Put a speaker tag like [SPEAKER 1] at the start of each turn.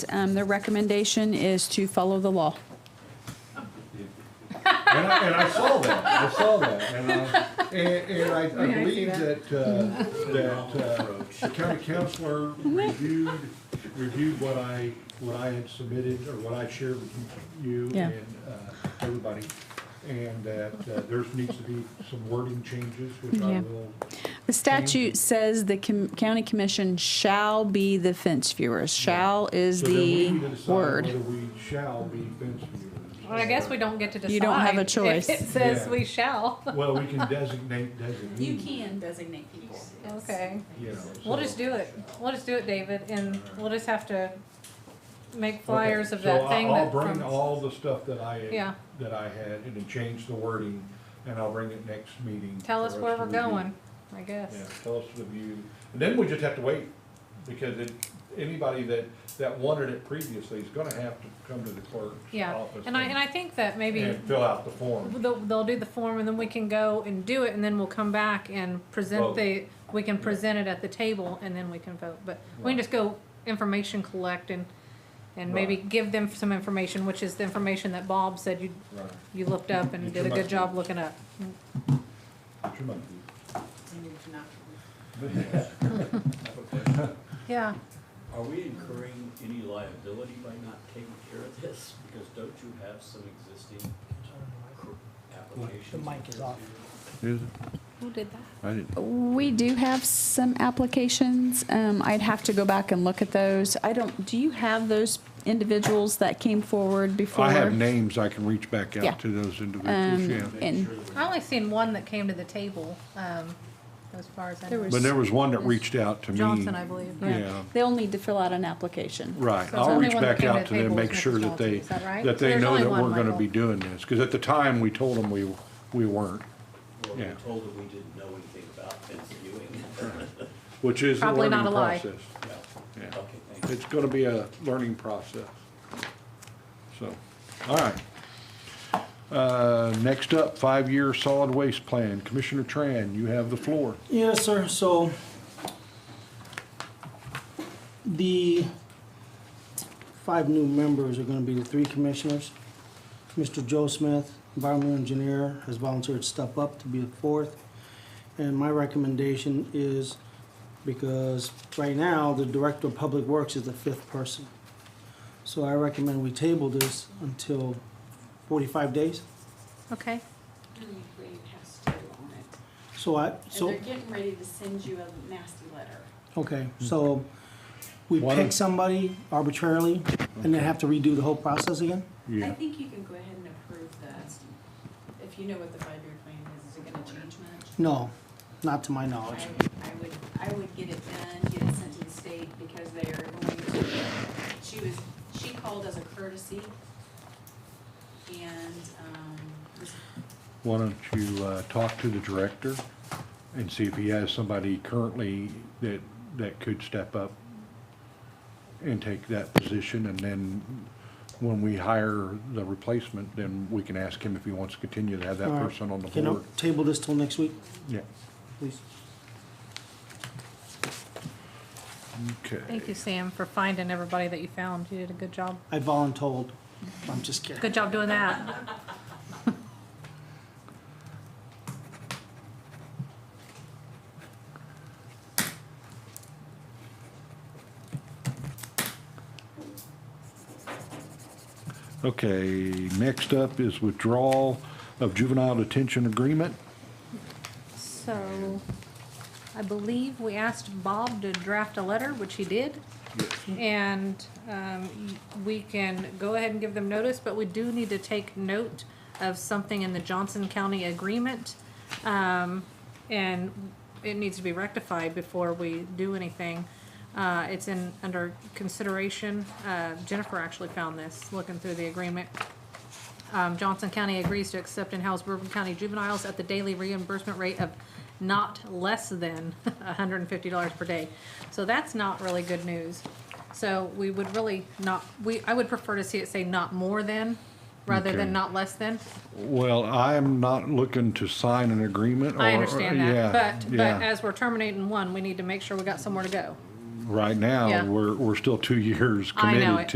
[SPEAKER 1] Um, Their recommendation is to follow the law.
[SPEAKER 2] And I, and I saw that, I saw that, and I, and, and I, I
[SPEAKER 3] I see
[SPEAKER 2] believe
[SPEAKER 3] that.
[SPEAKER 2] that, uh, that, uh, the county counselor reviewed, reviewed what I, what I had submitted, or what I shared with you
[SPEAKER 1] Yeah.
[SPEAKER 2] and, uh, everybody. And that, uh, there needs to be some wording changes, which I
[SPEAKER 1] Yeah.
[SPEAKER 2] will,
[SPEAKER 1] The statute says the com- county commission shall be the fence viewers. Shall is
[SPEAKER 2] so then we
[SPEAKER 1] the
[SPEAKER 2] need to decide whether
[SPEAKER 1] word.
[SPEAKER 2] we shall be fence viewers.
[SPEAKER 3] Well, I guess we don't get to decide.
[SPEAKER 1] You don't have a choice.
[SPEAKER 3] If it says
[SPEAKER 2] Yeah.
[SPEAKER 3] we shall,
[SPEAKER 2] Well, we can designate, designate.
[SPEAKER 1] designate people.
[SPEAKER 3] okay.
[SPEAKER 2] You know.
[SPEAKER 3] We'll
[SPEAKER 2] so-
[SPEAKER 3] just do it. We'll just do it, David, and we'll just have to make
[SPEAKER 2] Okay,
[SPEAKER 3] flyers of
[SPEAKER 2] so
[SPEAKER 3] that
[SPEAKER 2] I'll-
[SPEAKER 3] thing
[SPEAKER 2] I'll
[SPEAKER 3] that.
[SPEAKER 2] bring
[SPEAKER 3] from-
[SPEAKER 2] all the stuff that I,
[SPEAKER 3] Yeah.
[SPEAKER 2] had- that I had, and then change the wording, and I'll bring it next meeting.
[SPEAKER 3] Tell
[SPEAKER 2] for
[SPEAKER 3] us where
[SPEAKER 2] to
[SPEAKER 3] we're
[SPEAKER 2] review.
[SPEAKER 3] going, I
[SPEAKER 2] Yeah,
[SPEAKER 3] guess.
[SPEAKER 2] tell us the view, and then we just have to wait, because it, anybody that, that wanted it previously is gonna have to come to the clerk's
[SPEAKER 3] Yeah,
[SPEAKER 2] office.
[SPEAKER 3] and I, and I think that maybe
[SPEAKER 2] and fill out the form.
[SPEAKER 3] they'll, they'll do the form and then we can go and do it and then we'll come back and
[SPEAKER 2] Vote.
[SPEAKER 3] present the, we can present it at the table and then we can vote. But we
[SPEAKER 2] Right.
[SPEAKER 3] can just go information collect and, and maybe
[SPEAKER 2] Right.
[SPEAKER 3] give them some information, which is the information that Bob said you,
[SPEAKER 2] Right,
[SPEAKER 3] you looked up and
[SPEAKER 2] Get
[SPEAKER 3] did
[SPEAKER 2] your
[SPEAKER 3] a good
[SPEAKER 2] monkey.
[SPEAKER 3] job looking up.
[SPEAKER 2] Get your monkey.
[SPEAKER 3] Yeah,
[SPEAKER 4] Are we incurring any liability by not taking care of this? Because don't you have some existing cr- applications?
[SPEAKER 5] The mic is off.
[SPEAKER 3] who did that?
[SPEAKER 1] We do have some applications. Um, I'd have to go back and look at those. I don't, do you have those individuals that came forward before?
[SPEAKER 2] I have names, I can reach back
[SPEAKER 1] Yeah.
[SPEAKER 2] out to those individuals,
[SPEAKER 1] Um,
[SPEAKER 2] yeah.
[SPEAKER 1] and-
[SPEAKER 3] I only seen one that came to the table, um, as far as I
[SPEAKER 1] There
[SPEAKER 3] know.
[SPEAKER 1] was-
[SPEAKER 2] But there was one that reached out to me.
[SPEAKER 3] Johnson, I believe.
[SPEAKER 1] Yeah.
[SPEAKER 2] Yeah.
[SPEAKER 1] They'll need to fill out an application.
[SPEAKER 2] Right,
[SPEAKER 3] So
[SPEAKER 2] I'll
[SPEAKER 3] the only
[SPEAKER 2] reach
[SPEAKER 3] one that
[SPEAKER 2] back
[SPEAKER 3] came to
[SPEAKER 2] out
[SPEAKER 3] the
[SPEAKER 2] to them,
[SPEAKER 3] table
[SPEAKER 2] make
[SPEAKER 3] was Mr.
[SPEAKER 2] sure that
[SPEAKER 3] Johnson,
[SPEAKER 2] they,
[SPEAKER 3] is that right?
[SPEAKER 2] that they
[SPEAKER 3] There's
[SPEAKER 2] know
[SPEAKER 3] only
[SPEAKER 2] that
[SPEAKER 3] one,
[SPEAKER 2] we're gonna
[SPEAKER 3] Michael.
[SPEAKER 2] be doing this, cause at the time, we told them we, we weren't,
[SPEAKER 4] Or we
[SPEAKER 2] Yeah.
[SPEAKER 4] were told that we didn't know anything about fence viewing?
[SPEAKER 2] which is a
[SPEAKER 3] Probably
[SPEAKER 2] learning
[SPEAKER 3] not a lie.
[SPEAKER 2] process.
[SPEAKER 4] Well,
[SPEAKER 2] Yeah.
[SPEAKER 4] Okay, thank you.
[SPEAKER 2] It's gonna be a learning process. So, all right. Uh, next up, five-year solid waste plan. Commissioner Tran, you have the floor.
[SPEAKER 5] Yes, sir, so the five new members are gonna be the three commissioners. Mr. Joe Smith, environmental engineer, has volunteered to step up to be the fourth. And my recommendation is, because right now, the director of public works is the fifth person. So I recommend we table this until forty-five days,
[SPEAKER 3] Okay,
[SPEAKER 6] Attorney Green has to do on it.
[SPEAKER 5] so I,
[SPEAKER 6] And
[SPEAKER 5] so.
[SPEAKER 6] they're getting ready to send you a nasty letter.
[SPEAKER 5] Okay, so we
[SPEAKER 2] Why
[SPEAKER 5] pick
[SPEAKER 2] don't-
[SPEAKER 5] somebody arbitrarily and then have to redo the whole process again?
[SPEAKER 6] I
[SPEAKER 2] Yeah,
[SPEAKER 6] think you can go ahead and approve that. If you know what the five-year plan is, is it gonna change much?
[SPEAKER 5] No, not to my
[SPEAKER 6] I,
[SPEAKER 5] knowledge.
[SPEAKER 6] I would, I would get it done, get it sent to the state because they are going to, she was, she called as a courtesy. And, um, this-
[SPEAKER 2] why don't you, uh, talk to the director and see if he has somebody currently that, that could step up and take that position, and then when we hire the replacement, then we can ask him if he wants to continue to have that
[SPEAKER 5] Alright.
[SPEAKER 2] person on the
[SPEAKER 5] Can I
[SPEAKER 2] board.
[SPEAKER 5] table this till next week,
[SPEAKER 2] Yeah,
[SPEAKER 5] please?
[SPEAKER 2] okay.
[SPEAKER 3] thank you, Sam, for finding everybody that you found. You did a good job.
[SPEAKER 5] I voluntold. I'm just kidding.
[SPEAKER 3] Good job doing that.
[SPEAKER 2] Okay, next up is withdrawal of juvenile detention agreement.
[SPEAKER 3] So, I believe we asked Bob to draft a letter, which he did. And, um, y- we can go ahead and give them notice, but we do need to take note of something in the Johnson County agreement. Um, and it needs to be rectified before we do anything. Uh, it's in, under consideration. Uh, Jennifer actually found this, looking through the agreement. Um, Johnson County agrees to accept and house Bourbon County juveniles at the daily reimbursement rate of not less than hundred and fifty dollars per day. So that's not really good news. So we would really not, we, I would prefer to see it say not more than, rather
[SPEAKER 2] Okay.
[SPEAKER 3] than not less than.
[SPEAKER 2] Well, I'm not looking to sign an agreement.
[SPEAKER 3] I
[SPEAKER 2] or-
[SPEAKER 3] understand
[SPEAKER 2] yeah,
[SPEAKER 3] that, but, but
[SPEAKER 2] yeah.
[SPEAKER 3] as we're terminating one, we need to make sure we got somewhere to go.
[SPEAKER 2] Right now,
[SPEAKER 3] Yeah.
[SPEAKER 2] we're, we're still two years
[SPEAKER 3] I know
[SPEAKER 2] committed
[SPEAKER 3] it.